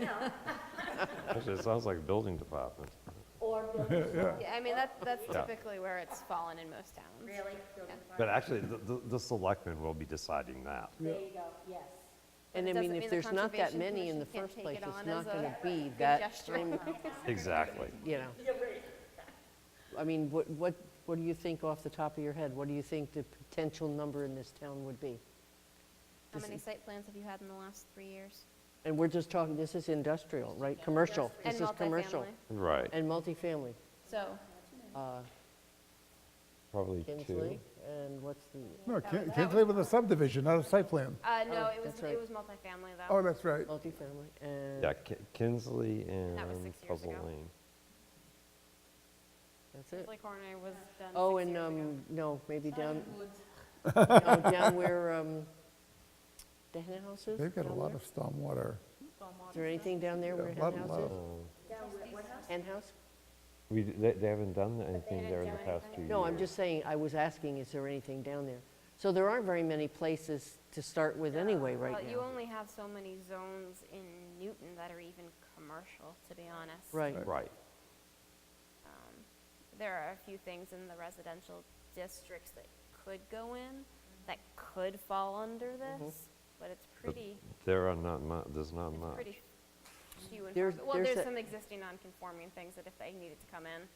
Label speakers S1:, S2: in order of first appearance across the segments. S1: yeah.
S2: Actually, it sounds like a building department.
S1: Or building,
S3: Yeah, I mean, that, that's
S2: Yeah.
S3: typically where it's fallen in most towns.
S1: really, building
S2: But
S1: department.
S2: actually, the- the, the selectmen will be deciding that.
S1: There you go, yes.
S4: And I
S3: Doesn't
S4: mean,
S3: the
S4: if there's not that
S3: Conservation
S4: many in
S3: Commission
S4: the
S3: can't
S4: first
S3: take
S4: place,
S3: it
S4: it's
S3: on
S4: not
S3: as
S4: going
S3: a
S4: to be
S3: good
S4: that,
S3: gesture.
S4: time-
S2: Exactly.
S4: you know.
S1: You're right.
S4: I mean, what, what, what do you think off the top of your head? What do you think the potential number in this town would be?
S3: How many site plans have you had in the last three years?
S4: And we're just talking, this is industrial, right? Commercial. This is commercial.
S3: And multifamily.
S2: Right.
S4: And multifamily.
S3: So,
S4: Uh,
S2: Probably
S4: Kinsley, and what's the,
S5: No,
S3: That
S5: Kin-
S3: was-
S5: Kinsley with a subdivision, not a site plan.
S3: uh, no, it was,
S4: Oh, that's right.
S3: it was multifamily
S5: Oh,
S3: though.
S5: that's right.
S4: multifamily, and
S2: Yeah, Ki- Kinsley and
S3: That was six years
S2: Puzzle
S3: ago.
S2: Lane.
S4: that's it.
S3: Like Corner was done
S4: Oh,
S3: six
S4: and,
S3: years ago.
S4: um, no, maybe down, no, down where, um, the hen house is?
S5: They've got a
S4: down
S5: lot
S4: there?
S5: of stormwater.
S4: Is there anything down there where
S5: A
S4: hen
S5: lot-
S4: house
S5: lot
S4: is?
S5: of-
S4: Hen house?
S2: We, d- they, they haven't done anything there in the past two years.
S4: No, I'm just saying, I was asking, is there anything down there? So there aren't very many places to start with anyway
S3: Well,
S4: right
S3: you
S4: now.
S3: only have so many zones in Newton that are even commercial, to be honest.
S4: Right,
S2: Right.
S3: Um, There are a few things in the residential districts that could go in, that could fall under
S4: Mm-hmm.
S3: this, but it's pretty,
S2: There are not mu, there's not
S3: it's
S2: much.
S3: pretty few and far.
S4: There's-
S3: bet- Well,
S4: there's
S3: there's
S4: a-
S3: some existing non-conforming things that if they needed to come in,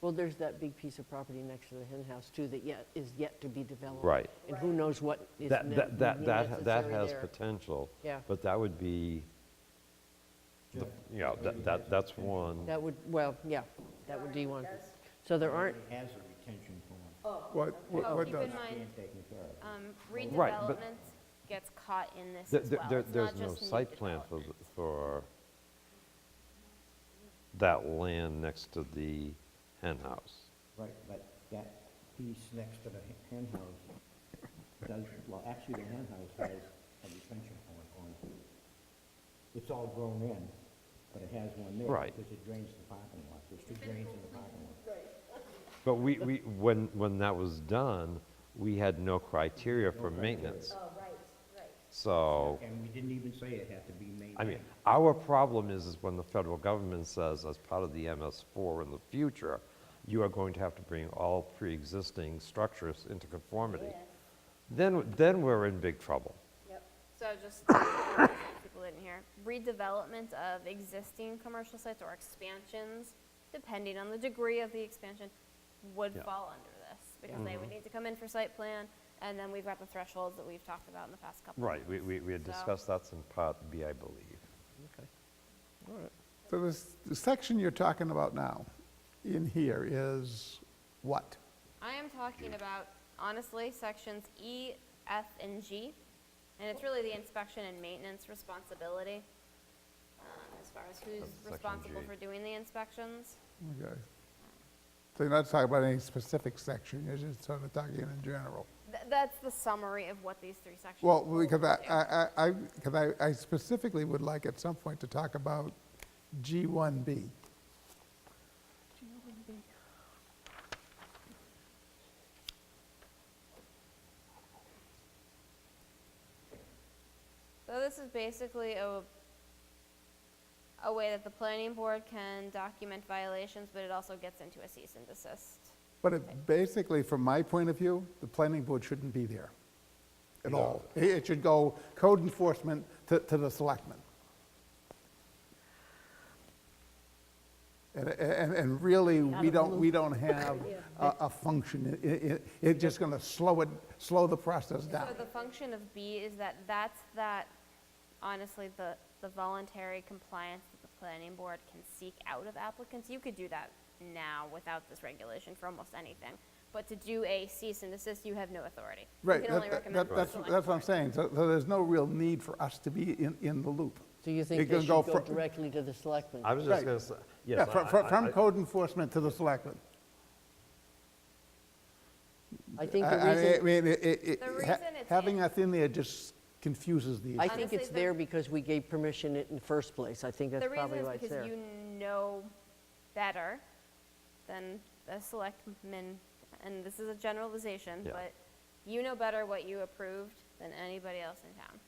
S4: well, there's that big piece of property next to the hen house too that yet, is yet to be developed.
S2: Right.
S4: And who knows what is ne-
S2: That, that, that, that ha-
S4: necessary
S2: that has
S4: there.
S2: potential.
S4: Yeah.
S2: But that would be, the- you know, that, that, that's one.
S4: That would, well, yeah, that would be one. So there aren't,
S6: has a retention pond.
S5: What, what
S3: Oh,
S5: what
S3: keep in
S5: does?
S3: mind-
S6: Being taken care of.
S3: um,
S2: Right, but-
S3: redevelopment gets caught in this
S2: There,
S3: as
S2: there-
S3: well.
S2: there-
S3: It's
S2: there's
S3: not
S2: no
S3: just new
S2: site plan for,
S3: development.
S2: the- for that land next to the hen house.
S6: Right, but that piece next to the hen- hen house does, well, actually, the hen house has a retention pond on it. It's all grown in, but it has one there.
S2: Right.
S6: Because it drains the parking lot. There's two drains in the parking lot.
S2: But we, we, when, when that was done, we had no criteria for maintenance.
S1: Oh, right, right.
S2: So,
S6: And we didn't even say it had to be maintained.
S2: Oh. I mean, our problem is, is when the federal government says, as part of the MS4 in the future, you are going to have to bring all pre-existing structures into conformity.
S1: Yeah,
S2: Then, then we're in big trouble.
S1: yep.
S3: So just, people didn't hear, redevelopment of existing commercial sites or expansions, depending on the degree of the expansion, would
S2: Yeah. Mm-hmm.
S3: fall under this, because they would need to come in for site plan, and then we've got the thresholds that we've talked about in the past couple.
S2: Right, we, we, we had
S3: So-
S2: discussed that's in part B, I believe.
S5: So this, the section you're talking about now, in here, is what?
S3: I am talking about, honestly, sections E, F, and G, and it's really the inspection and maintenance responsibility, um, as far as who's
S2: Of section
S3: responsible
S2: G.
S3: for doing the inspections.
S5: Okay. So you're not talking about any specific section, you're just sort of talking in general.
S3: Th- That's the summary of what these three sections.
S5: Well,
S3: will
S5: because I-
S3: do.
S5: I, I, I, because I- I specifically would like at some point to talk about G1B.
S3: So this is basically a, a way that the planning board can document violations, but it also gets into a cease and desist.
S5: But it basically, from my point of view, the planning board shouldn't be there at all. It- It should go code enforcement to, to the selectmen. And, and, and really, we don't, we don't have a, a function. It, it, it's just gonna slow it, slow the process
S3: So
S5: down.
S3: the function of B is that that's that, honestly, the, the voluntary compliance that the planning board can seek out of applicants. You could do that now without this regulation for almost anything. But to do a cease and desist, you have no authority. You
S5: Right,
S3: can only
S5: that-
S3: recommend
S5: that-
S3: to the
S5: that's,
S3: select
S5: that's what I'm
S3: board.
S5: saying. So, so there's no real need for us to be in, in the loop.
S4: do you
S5: It
S4: think
S5: can
S4: they should
S5: go
S4: go
S5: fro-
S4: directly to the selectmen?
S2: I was just
S5: Right.
S2: gonna say,
S5: Yeah,
S2: yes.
S5: fro-
S2: I-
S5: fro-
S2: I-
S5: from
S2: I-
S5: code enforcement to the selectmen.
S4: I think the
S5: I- I
S4: reason.
S5: mean, it- it- it-
S3: The
S5: ha-
S3: reason it's
S5: Having
S3: in-
S5: us in there just confuses
S4: I
S5: the issue.
S4: think
S3: Honestly,
S4: it's
S3: the-
S4: there because we gave permission it in the first place. I think that's
S3: The reason
S4: probably
S3: is
S4: why it's
S3: because you
S4: there.
S3: know better than the selectmen, and this is a generalization,
S2: Yeah.
S3: but you know better what you approved than anybody else in town.